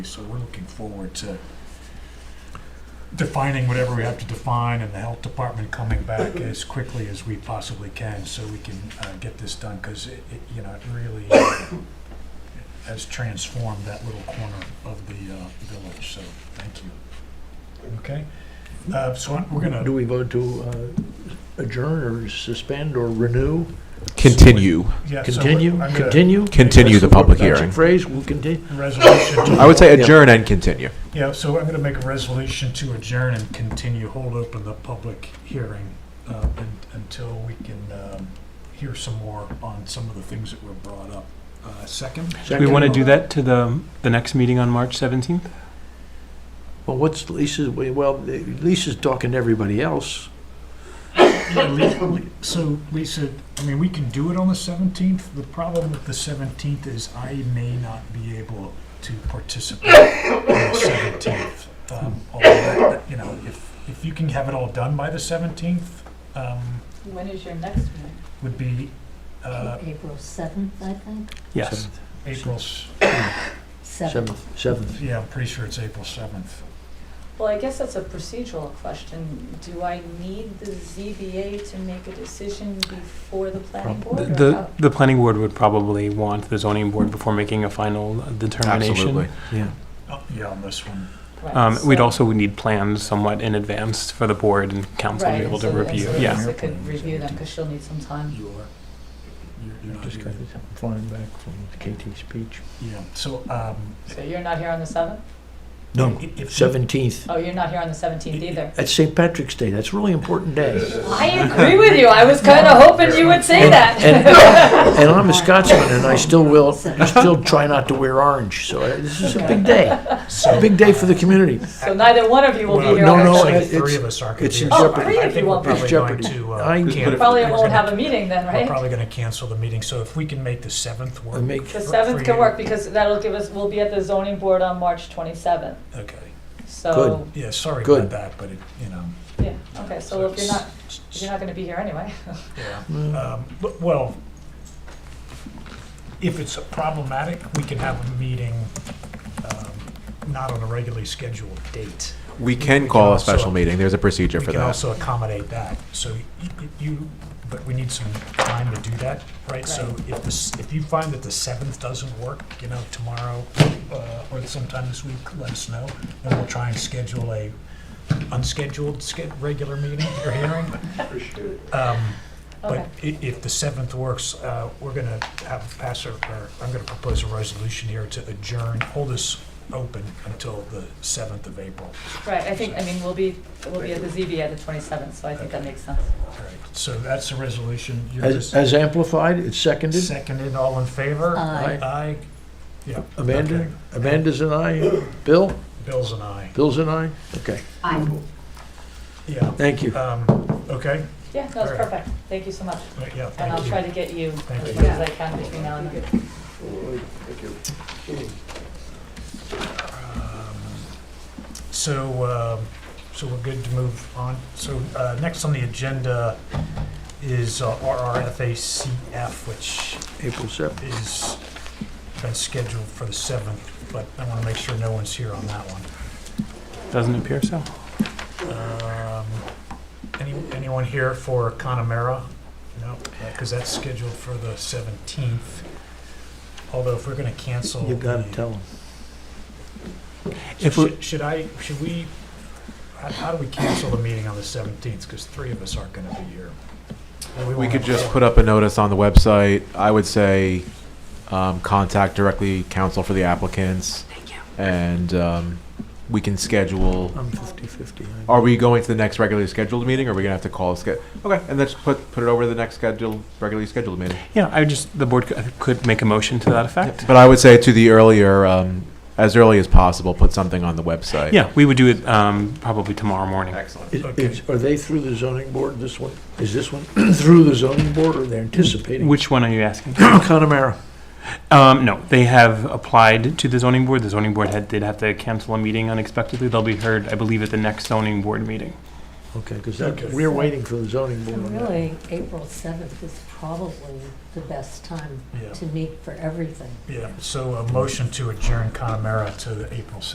So we're looking forward to defining whatever we have to define and the health department coming back as quickly as we possibly can so we can uh, get this done, because it, it, you know, it really has transformed that little corner of the uh, village, so thank you. Okay, Uh, so I'm- we're gonna, Do we vote to uh, adjourn or suspend or renew? Continue. yeah. so we're- Continue? I'm gonna- Continue? Continue the That's public magic hearing. Phrase, we'll continue. Resolution to I would say Yeah. adjourn and continue. Yeah, so I'm gonna make a resolution to adjourn and continue, hold open the public hearing uh, un- until we can um, hear some more on some of the things that were brought up. Uh, Second? We want to do that to the, the next meeting on March 17th? Well, what's Lisa's, well, Lisa's talking to everybody else. Yeah, Le- Le- So Lisa, I mean, we can do it on the 17th. The problem with the 17th is I may not be able to participate on the 17th. Um, although that- You know, if, if you can have it all done by the 17th, um, When is your next one? would be uh, April seventh, I think. Yes. April, s- Seventh, seventh. yeah, I'm pretty sure it's April 7th. Well, I guess that's a procedural question. Do I need the ZBA to make a decision before the planning board? or The, how- the planning board would probably want the zoning board before making a final determination. Absolutely. Yeah. Oh, Yeah, on this one. Right, Um, We'd so- also need plans somewhat in advance for the board and council to Right, be able to so- and review. so Yeah, Lisa could review them, because she'll need some time. You are, you're- you're not Just got here. this, I'm flying back from KT speech. Yeah, so um, So you're not here on the seventh? No, i- if. seventeenth. Oh, you're not here on the seventeenth either. That's St. Patrick's Day. That's a really important day. I agree with you. I was kind of hoping you would say And- that. And I'm a Scotsman and I still will, I still try not to wear orange, so I- this is a big day. It's a big day for the community. So neither one of you will uh, Well, be here no, on the no, actually, it- seventh. it's- Three of us are. it's confused. in jeopardy. Oh, three I of think you we're won't be. probably going It's jeopardy. to, uh, I can- can't- Probably we're won't gonna- have a meeting then, We're right? probably going to cancel the meeting, so if we can make the 7th I work. make, for- The seventh for can you. work, because that'll give us, we'll be at the zoning board on March twenty-seventh. Okay, So, yeah, sorry Good. about that, but it, you know, yeah, okay, so if you're not, if you're not gonna be here anyway. yeah. Mm, Um, but- Well, if it's problematic, we can have a meeting um, not on a regularly scheduled date. We can call a also- special meeting. There's a procedure We for can that. also accommodate that. So y- y- you, but we need some time to do that, right? So if this, if you find that the 7th doesn't work, you know, tomorrow uh, or sometime this week, let us know. And we'll try and schedule a unscheduled, sched- regular meeting or hearing. Um, Okay, But i- if the 7th works, uh, we're going to have, pass or, or I'm going to propose a resolution here to adjourn, hold this open until the 7th of April. right, I think, I mean, we'll be, we'll be at the ZB at the twenty-seventh, so I think that makes sense. All right, so that's the resolution. You're As just- as amplified, it's seconded. Seconded, all in favor? Aye. Aye. Yeah. Amanda, okay. Amanda's an aye. Bill, Bill's an aye. Bill's an aye. Okay, Yeah. thank you. Um, okay, Yeah, no, it's Alright. perfect, thank you so much, Right, yeah, and I'll thank try you. to get you Thank as you. much as I can between now and then. Um, So, um, so we're good to move on. So, uh, next on the agenda is uh, RRFACF, which April 7th. is, been scheduled for the 7th, but I want to make sure no one's here on that one. doesn't appear so. Um, Any, anyone here for Connemara? No, because that's scheduled for the 17th. Although if we're going to cancel. You've got to the- tell them. If we- Should- Should I, should we, how, how do we cancel the meeting on the 17th? Because three of us aren't going to be here. Well, We won't could have just a- put up a notice on the website. I would say, um, contact directly counsel for the applicants. And, um, we can schedule, I'm 50/50. I- are we going to the next regularly scheduled meeting? Or are we gonna have to call a sched? Okay, and let's put, put it over the next scheduled, regularly scheduled meeting. Yeah, I just, the board could- could make a motion to that effect. But I would say to the earlier, um, as early as possible, put something on the website. Yeah, we would do it um, probably tomorrow morning. Excellent. Is- Okay. is- Are they through the zoning board, this one? Is this one through the zoning board or they're anticipating? Which one are you asking? Connemara. Um, no, they have applied to the zoning board. The zoning board had, did have to cancel a meeting unexpectedly. They'll be heard, I believe, at the next zoning board meeting. Okay, because Okay. we're waiting for the zoning board on that. Oh, Really, April 7th is probably the best time Yeah, to meet for everything. yeah. So a motion to adjourn Connemara to the April